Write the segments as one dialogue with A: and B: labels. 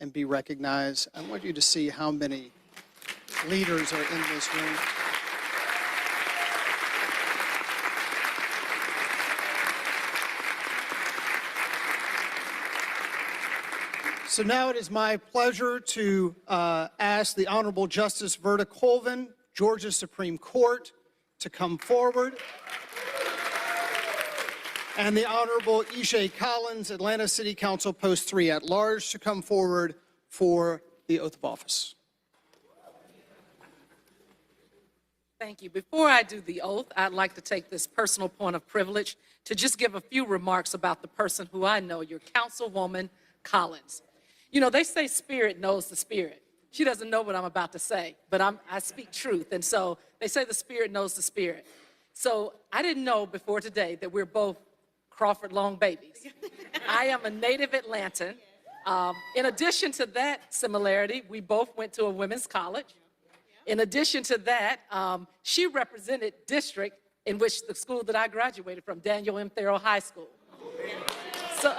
A: and be recognized. I want you to see how many leaders are in this room. So now it is my pleasure to uh, ask the Honorable Justice Verda Colvin, Georgia Supreme Court, to come forward. And the Honorable Ishay Collins, Atlanta City Council Post 3 at Large, to come forward for the oath of office.
B: Thank you. Before I do the oath, I'd like to take this personal point of privilege to just give a few remarks about the person who I know, your Councilwoman Collins. You know, they say spirit knows the spirit. She doesn't know what I'm about to say, but I'm, I speak truth. And so they say the spirit knows the spirit. So I didn't know before today that we're both Crawford Long babies. I am a native Atlantan. Um, in addition to that similarity, we both went to a women's college. In addition to that, um, she represented district in which the school that I graduated from, Daniel M. Thurl High School. So,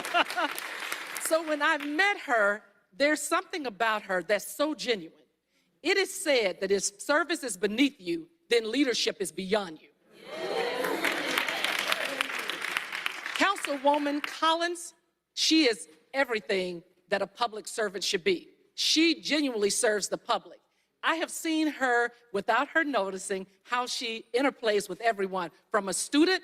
B: so when I met her, there's something about her that's so genuine. It is said that if service is beneath you, then leadership is beyond you. Councilwoman Collins, she is everything that a public servant should be. She genuinely serves the public. I have seen her, without her noticing, how she interplays with everyone, from a student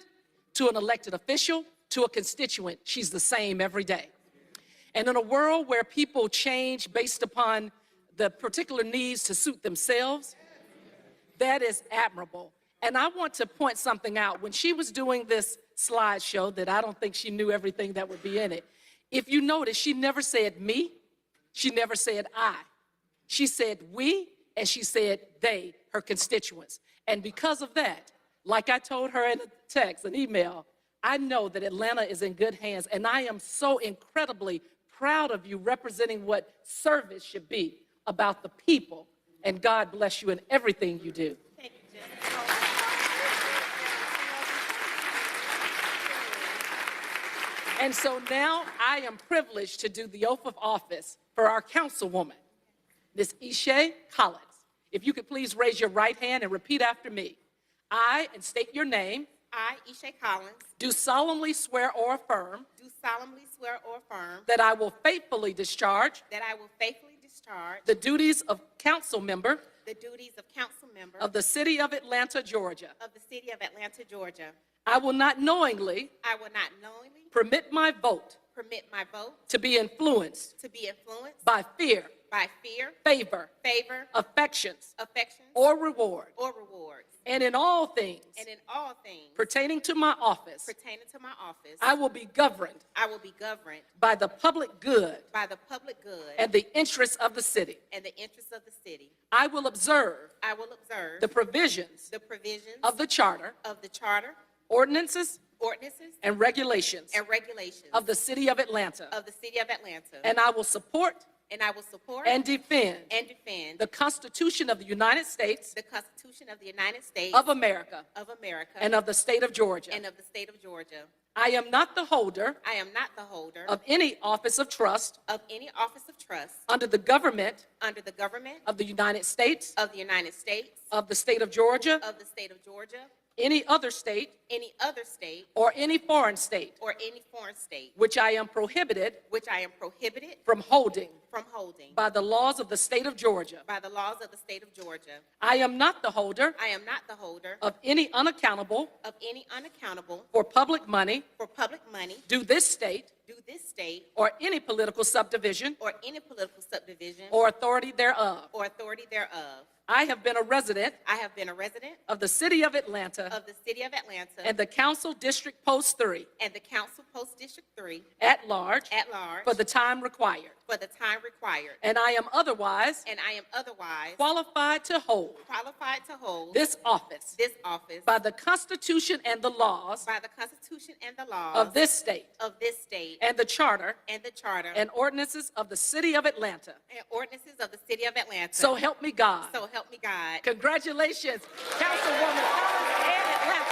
B: to an elected official to a constituent. She's the same every day. And in a world where people change based upon the particular needs to suit themselves, that is admirable. And I want to point something out. When she was doing this slideshow, that I don't think she knew everything that would be in it, if you notice, she never said me, she never said I. She said we, and she said they, her constituents. And because of that, like I told her in a text, an email, I know that Atlanta is in good hands, and I am so incredibly proud of you representing what service should be about the people. And God bless you in everything you do. And so now I am privileged to do the oath of office for our councilwoman, Ms. Ishay Collins. If you could please raise your right hand and repeat after me. I, and state your name,
C: I, Isha Collins,
B: do solemnly swear or affirm
C: do solemnly swear or affirm
B: that I will faithfully discharge
C: that I will faithfully discharge
B: the duties of council member
C: the duties of council member
B: of
C: of
B: the city of Atlanta, Georgia.
C: the city of Atlanta, Georgia.
B: I will not knowingly
C: I will not knowingly
B: permit my vote
C: permit my vote
B: to be influenced
C: to be influenced
B: by fear,
C: by fear,
B: favor,
C: favor,
B: affections,
C: affection,
B: or reward,
C: or rewards,
B: and in all things
C: and in all things
B: pertaining to my office,
C: pertaining to my office,
B: I will be governed
C: I will be governed
B: by the public good
C: by the public good
B: and the interests of the city.
C: and the interests of the city.
B: I will observe
C: I will observe
B: the provisions
C: the provisions
B: of the charter,
C: of the charter,
B: ordinances,
C: ordinances,
B: and regulations
C: and regulations
B: of the city of Atlanta,
C: of the city of Atlanta.
B: and I will support
C: And I will support.
B: and defend
C: and defend.
B: the Constitution of the United States
C: the Constitution of the United States.
B: of America
C: of America.
B: and of the state of Georgia.
C: and of the state of Georgia.
B: I am not the holder
C: I am not the holder.
B: of any office of trust
C: of any office of trust.
B: under the government
C: Under the government.
B: of the United States,
C: of the United States.
B: of the state of Georgia,
C: of the state of Georgia.
B: any other state,
C: Any other state.
B: or any foreign state,
C: Or any foreign state.
B: which I am prohibited
C: Which I am prohibited
B: from holding
C: from holding.
B: by the laws of the state of Georgia.
C: By the laws of the state of Georgia.
B: I am not the holder
C: I am not the holder.
B: of any unaccountable
C: of any unaccountable.
B: for public money
C: For public money.
B: due this state
C: due this state.
B: or any political subdivision
C: Or any political subdivision.
B: or authority thereof.
C: or authority thereof.
B: I have been a resident
C: I have been a resident
B: of the city of Atlanta
C: of the city of Atlanta
B: and the council district post three
C: and the council post district three
B: at large
C: at large
B: for the time required.
C: for the time required.
B: And I am otherwise
C: And I am otherwise
B: qualified to hold
C: qualified to hold
B: this office
C: this office
B: by the Constitution and the laws
C: by the Constitution and the laws
B: of this state
C: of this state
B: and the charter
C: and the charter
B: and ordinances of the city of Atlanta.
C: and ordinances of the city of Atlanta.
B: So help me God.
C: So help me God.
B: Congratulations, Councilwoman Collins and Atlanta.